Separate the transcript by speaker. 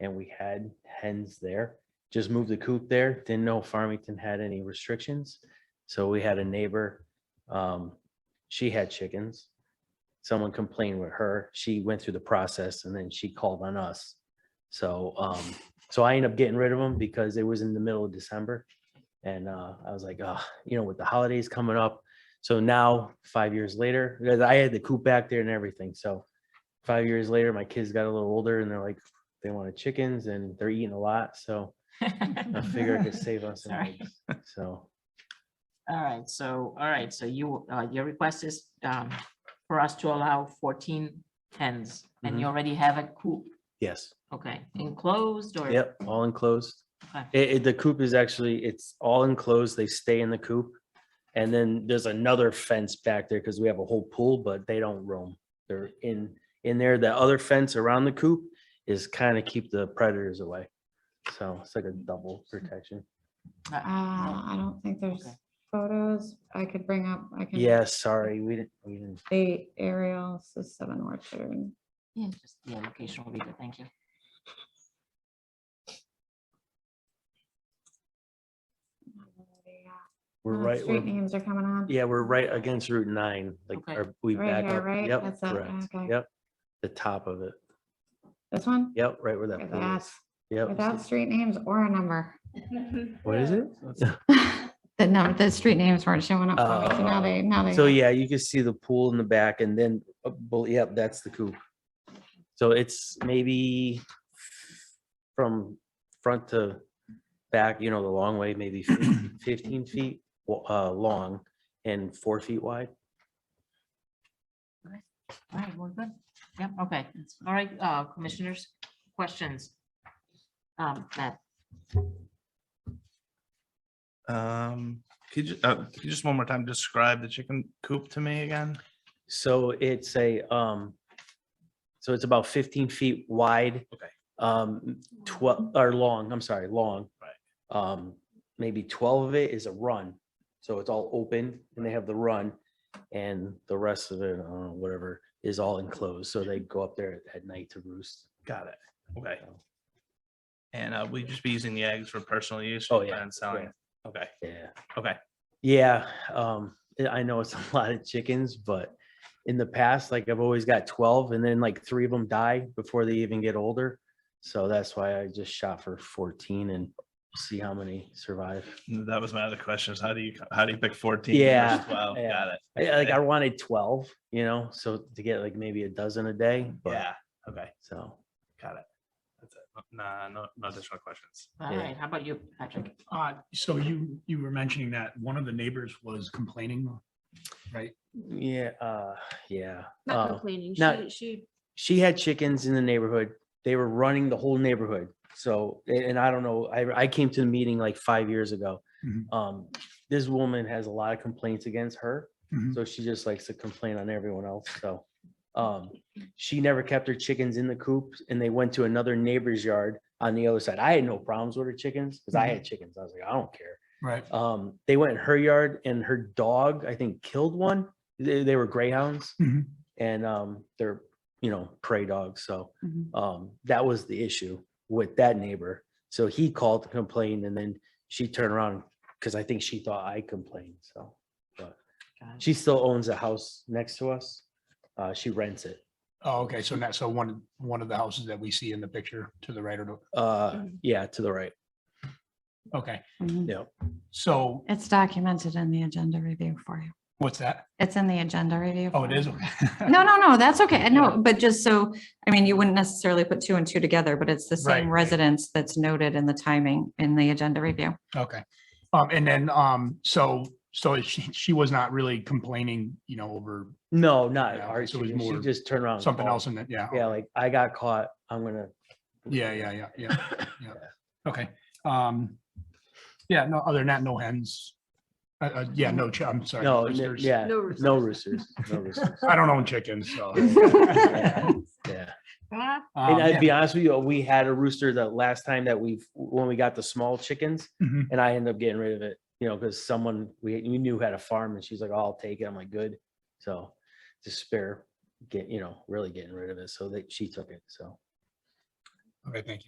Speaker 1: and we had hens there. Just moved the coop there, didn't know Farmington had any restrictions. So we had a neighbor, um, she had chickens. Someone complained with her, she went through the process and then she called on us. So, um, so I ended up getting rid of them because it was in the middle of December. And, uh, I was like, ah, you know, with the holidays coming up. So now, five years later, because I had the coop back there and everything, so five years later, my kids got a little older and they're like, they wanted chickens and they're eating a lot, so I figured I could save us some
Speaker 2: Sorry.
Speaker 1: eggs, so.
Speaker 2: All right, so, all right, so you, uh, your request is, um, for us to allow fourteen hens, and
Speaker 1: Mm-hmm.
Speaker 2: you already have a coop,
Speaker 1: Yes,
Speaker 2: okay, enclosed or?
Speaker 1: yep, all enclosed.
Speaker 2: Okay.
Speaker 1: It, it- the coop is actually, it's all enclosed. They stay in the coop. And then there's another fence back there because we have a whole pool, but they don't roam. They're in, in there. The other fence around the coop is kind of keep the predators away. So it's like a double protection.
Speaker 3: Uh, I don't think there's
Speaker 2: Okay.
Speaker 3: photos I could bring up. I can.
Speaker 1: Yeah, sorry, we didn't, we didn't,
Speaker 3: The aerials, the seven orchard.
Speaker 2: Yeah, just, yeah, location will be good, thank you.
Speaker 1: we're
Speaker 3: Uh,
Speaker 1: right,
Speaker 3: Street
Speaker 1: we're,
Speaker 3: names are coming on.
Speaker 1: yeah, we're right against Route nine, like,
Speaker 2: Okay.
Speaker 1: are we
Speaker 3: Right
Speaker 1: back
Speaker 3: here,
Speaker 1: up?
Speaker 3: right?
Speaker 1: Yep,
Speaker 3: That's that-
Speaker 1: correct.
Speaker 3: okay.
Speaker 1: Yep. The top of it.
Speaker 3: This one?
Speaker 1: Yep, right where that
Speaker 3: Look at
Speaker 1: pool is.
Speaker 3: that. Without
Speaker 1: Yep.
Speaker 3: street names or a number.
Speaker 1: What is it?
Speaker 3: The number, the street names weren't showing up. for me, so Now
Speaker 1: Oh.
Speaker 3: they, now they.
Speaker 1: So yeah, you can see the pool in the back and then, uh, bel- yep, that's the coop. So it's maybe from front to back, you know, the long way, maybe fif- fifteen feet wa- uh, long and four feet wide.
Speaker 2: All right, we're good. Yep, okay. All right, uh, commissioners, questions? Um, Matt,
Speaker 4: Um, could you, uh, could you just one more time describe the chicken coop to me again?
Speaker 1: So it's a, um, so it's about fifteen feet wide.
Speaker 4: Okay.
Speaker 1: Um, twelve, or long, I'm sorry, long.
Speaker 4: Right.
Speaker 1: Um, maybe twelve of it is a run, so it's all open and they have the run. And the rest of it, uh, whatever, is all enclosed, so they go up there at night to roost.
Speaker 4: Got it. Okay. And, uh, we just be using the eggs for personal use?
Speaker 1: Oh,
Speaker 4: rather
Speaker 1: yeah,
Speaker 4: than selling?
Speaker 1: yeah.
Speaker 4: Okay,
Speaker 1: Yeah.
Speaker 4: okay.
Speaker 1: Yeah, um, I- I know it's a lot of chickens, but in the past, like I've always got twelve and then like three of them die before they even get older. So that's why I just shot for fourteen and see how many survive.
Speaker 4: That was my other question is how do you, how do you pick fourteen?
Speaker 1: Yeah,
Speaker 4: Wow,
Speaker 1: yeah.
Speaker 4: got it.
Speaker 1: I, like I
Speaker 4: Okay.
Speaker 1: wanted twelve, you know, so to get like maybe a dozen a day, but
Speaker 4: Yeah, okay,
Speaker 1: so.
Speaker 4: got it. That's it. Nah, no, no additional questions.
Speaker 2: all
Speaker 1: Yeah.
Speaker 2: right, how about you, Patrick?
Speaker 5: Uh, so you, you were mentioning that one of the neighbors was complaining, right?
Speaker 1: Yeah, uh, yeah.
Speaker 6: Not
Speaker 1: uh,
Speaker 6: complaining. She,
Speaker 1: not-
Speaker 6: she
Speaker 1: she had chickens in the neighborhood. They were running the whole neighborhood. So, a- and I don't know, I, I came to the meeting like five years ago.
Speaker 5: Mhm.
Speaker 1: Um, this woman has a lot of complaints against her.
Speaker 5: Mhm.
Speaker 1: So she just likes to complain on everyone else. So, um, she never kept her chickens in the coop and they went to another neighbor's yard on the other side. I had no problems with her chickens because I
Speaker 5: Mhm.
Speaker 1: had chickens. I was like, I don't care
Speaker 5: Right.
Speaker 1: um, they went in her yard and her dog, I think, killed one. They, they were greyhounds
Speaker 5: Mhm.
Speaker 1: and, um, they're, you know, prey dogs. So,
Speaker 3: Mhm.
Speaker 1: um, that was the issue with that neighbor. So he called to complain and then she turned around because I think she thought I complained. So
Speaker 2: Got it.
Speaker 1: she still owns a house next to us. Uh, she rents it.
Speaker 5: Oh, okay. So now, so one, one of the houses that we see in the picture to the right or to,
Speaker 1: Uh, yeah, to the right.
Speaker 5: okay.
Speaker 3: Mhm.
Speaker 1: Yeah.
Speaker 5: So
Speaker 3: It's documented in the agenda review for you.
Speaker 5: what's that?
Speaker 3: It's in the agenda review.
Speaker 5: Oh,
Speaker 3: for
Speaker 5: it
Speaker 3: you.
Speaker 5: is.
Speaker 3: No, no, no, that's okay. No, but just so, I mean, you wouldn't necessarily put two and two together, but it's the same
Speaker 5: Right.
Speaker 3: residence that's noted in the timing in the agenda review.
Speaker 5: Okay. Um, and then, um, so, so she, she was not really complaining, you know, over
Speaker 1: No, not
Speaker 5: Yeah,
Speaker 1: our
Speaker 5: so it was
Speaker 1: chicken. She
Speaker 5: more
Speaker 1: just turned around. and
Speaker 5: something
Speaker 1: called.
Speaker 5: else in that. Yeah.
Speaker 1: Yeah, like I got caught. I'm gonna.
Speaker 5: Yeah, yeah, yeah, yeah, yeah. Okay. Um, yeah, no, other than that, no hens. Uh, uh, yeah, no, chi- I'm sorry.
Speaker 1: No, n-
Speaker 5: roosters.
Speaker 1: yeah,
Speaker 6: no
Speaker 1: no
Speaker 6: resources.
Speaker 1: roosters, no roosters.
Speaker 5: I don't own chickens, so.
Speaker 1: Yeah. Yeah,
Speaker 2: Ah,
Speaker 5: Um,
Speaker 1: and I'd
Speaker 5: yeah.
Speaker 1: be honest with you, we had a rooster the last time that we've, when we got the small chickens,
Speaker 5: Mhm.
Speaker 1: and I ended up getting rid of it, you know, because someone we, we knew had a farm, and she's like, "Oh, "I'll take it." I'm like, "Good." So, to spare, get you know, really getting rid of it, so that she took it. So.
Speaker 5: Okay, thank you.